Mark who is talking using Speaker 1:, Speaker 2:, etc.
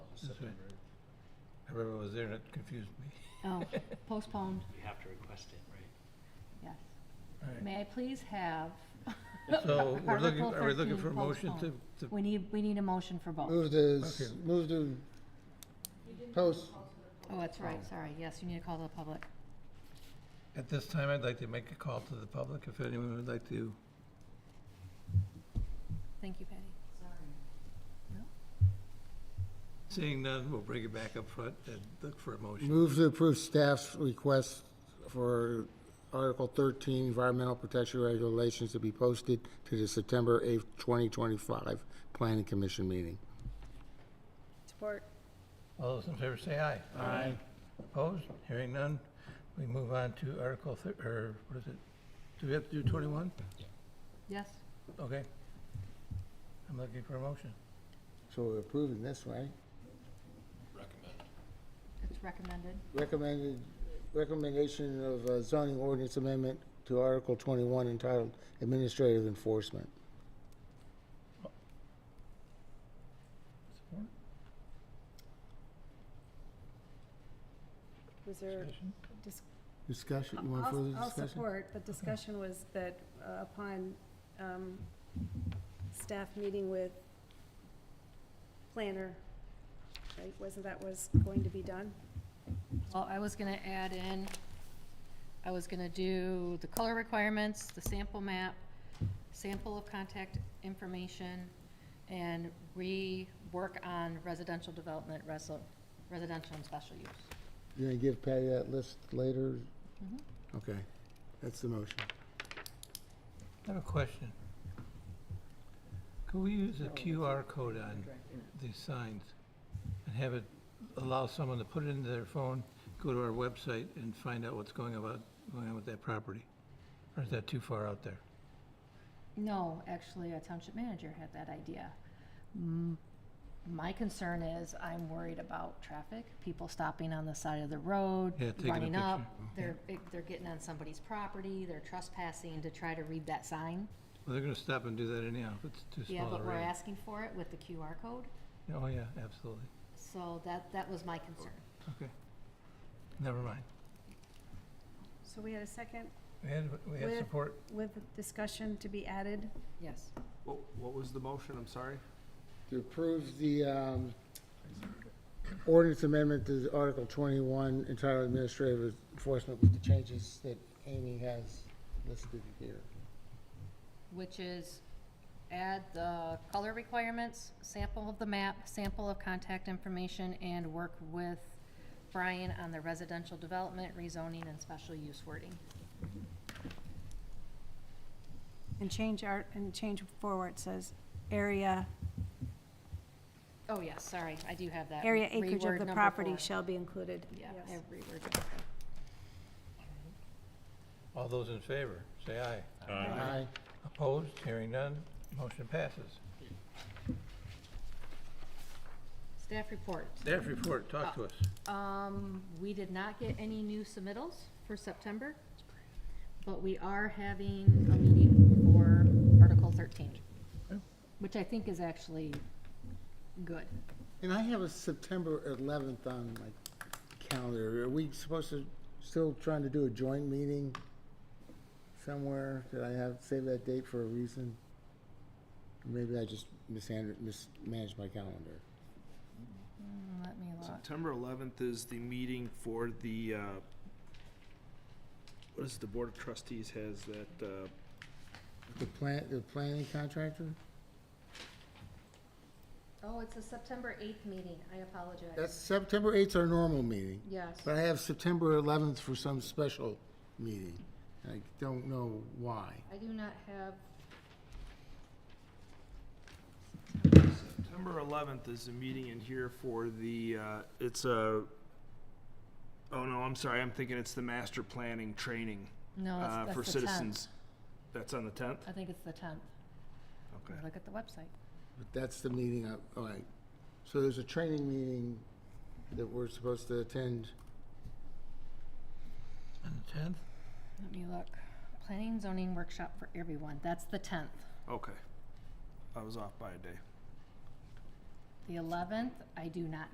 Speaker 1: September. I remember I was there and it confused me.
Speaker 2: Oh, postponed,
Speaker 3: We have to request it, right?
Speaker 2: yes.
Speaker 1: Right.
Speaker 2: May I please have?
Speaker 1: So we're looking,
Speaker 2: Article
Speaker 1: are we looking
Speaker 2: 13
Speaker 1: for a motion to,
Speaker 2: postponed?
Speaker 1: to,
Speaker 2: We need, we need a motion for both.
Speaker 4: Move to, s-
Speaker 1: Okay.
Speaker 4: move to post,
Speaker 2: Oh, that's right, sorry, yes, you need to call to the public.
Speaker 1: at this time, I'd like to make a call to the public if anyone would like to.
Speaker 2: Thank you, Patty.
Speaker 1: Seeing none, we'll bring it back up front and look for a motion.
Speaker 4: move to approve staff's request for Article 13 Environmental Protection Regulations to be posted to the September 8th, 2025 Planning Commission meeting.
Speaker 5: Support.
Speaker 1: All those in favor say aye. Aye. Opposed? Hearing none, we move on to Article thir, or what is it? Do we have to do twenty-one?
Speaker 2: Yes,
Speaker 1: Okay. I'm looking for a motion.
Speaker 4: So we're approving this, right?
Speaker 2: it's recommended.
Speaker 4: Recommended, recommendation of uh, zoning ordinance amendment to Article 21 entitled Administrative Enforcement.
Speaker 1: Support?
Speaker 5: Was there
Speaker 1: Discussion?
Speaker 5: dis-
Speaker 4: Discussion, you want further
Speaker 5: I'll, I'll
Speaker 4: discussion?
Speaker 5: support, but discussion was that uh, upon, um, staff meeting with planner, right, wasn't that was going to be done?
Speaker 2: Well, I was gonna add in, I was gonna do the color requirements, the sample map, sample of contact information, and rework on residential development, resi- residential and special use.
Speaker 4: You're gonna give Patty that list later?
Speaker 5: Mm-hmm.
Speaker 4: Okay, that's the motion.
Speaker 1: I have a question. Could we use a QR code on these signs and have it, allow someone to put it into their phone, go to our website and find out what's going about, going on with that property? Or is that too far out there?
Speaker 2: No, actually, a township manager had that idea. Mm, My concern is, I'm worried about traffic, people stopping on the side of the road,
Speaker 1: Yeah, taking a
Speaker 2: running up.
Speaker 1: picture.
Speaker 2: They're, they're getting on somebody's property, they're trespassing to try to read that sign.
Speaker 1: Well, they're gonna stop and do that anyhow, if it's too
Speaker 2: Yeah,
Speaker 1: small
Speaker 2: but
Speaker 1: a
Speaker 2: we're
Speaker 1: radius.
Speaker 2: asking for it with the QR code,
Speaker 1: Oh, yeah, absolutely.
Speaker 2: so that, that was my concern.
Speaker 1: Okay. Never mind.
Speaker 5: So we had a second
Speaker 1: We had, we had
Speaker 5: Where-
Speaker 1: support.
Speaker 5: with discussion to be added.
Speaker 2: Yes.
Speaker 6: What, what was the motion, I'm sorry?
Speaker 4: To approve the um, ordinance amendment to Article 21 entitled Administrative Enforcement with the changes that Amy has listed here.
Speaker 2: Which is add the color requirements, sample of the map, sample of contact information, and work with Brian on the residential development, rezoning, and special use wording.
Speaker 5: And change our, and change forward says area,
Speaker 2: Oh, yes, sorry, I do have that.
Speaker 5: area acreage
Speaker 2: Reword
Speaker 5: of the
Speaker 2: number
Speaker 5: property
Speaker 2: four.
Speaker 5: shall be included.
Speaker 2: Yeah,
Speaker 5: Yes.
Speaker 2: I have reworded number four.
Speaker 1: All those in favor, say aye.
Speaker 4: Aye.
Speaker 1: Opposed? Hearing none, motion passes.
Speaker 2: Staff report.
Speaker 1: Staff report, talk
Speaker 2: Uh,
Speaker 1: to us.
Speaker 2: Um, we did not get any new submittals for September, but we are having a meeting for Article thirteen,
Speaker 1: Okay.
Speaker 2: which I think is actually good.
Speaker 4: And I have a September 11th on my calendar. Are we supposed to, still trying to do a joint meeting somewhere? Did I have, save that date for a reason? Maybe I just mishand- mismanaged my calendar.
Speaker 2: Let me look.
Speaker 6: September eleventh is the meeting for the, uh, what is the Board of Trustees has that, uh,
Speaker 4: The plan, the planning contractor?
Speaker 2: Oh, it's a September eighth meeting, I
Speaker 4: That's
Speaker 2: apologize.
Speaker 4: September 8th, our normal meeting.
Speaker 2: Yes,
Speaker 4: But I have September 11th for some special meeting. I don't know why.
Speaker 2: I do not have,
Speaker 6: September eleventh is the meeting in here for the, uh, it's a, oh no, I'm sorry, I'm thinking it's the master planning training,
Speaker 2: no,
Speaker 6: uh,
Speaker 2: that's,
Speaker 6: for
Speaker 2: that's the tenth. Uh,
Speaker 6: citizens. That's on the tenth?
Speaker 2: I think it's the tenth.
Speaker 6: Okay.
Speaker 2: Look at the website.
Speaker 4: But that's the meeting, I- all right. So there's a training meeting that we're supposed to attend.
Speaker 1: On the tenth?
Speaker 2: Let me look. Planning and zoning workshop for everyone, that's the tenth.
Speaker 6: Okay. I was off by a day.
Speaker 2: The eleventh, I do not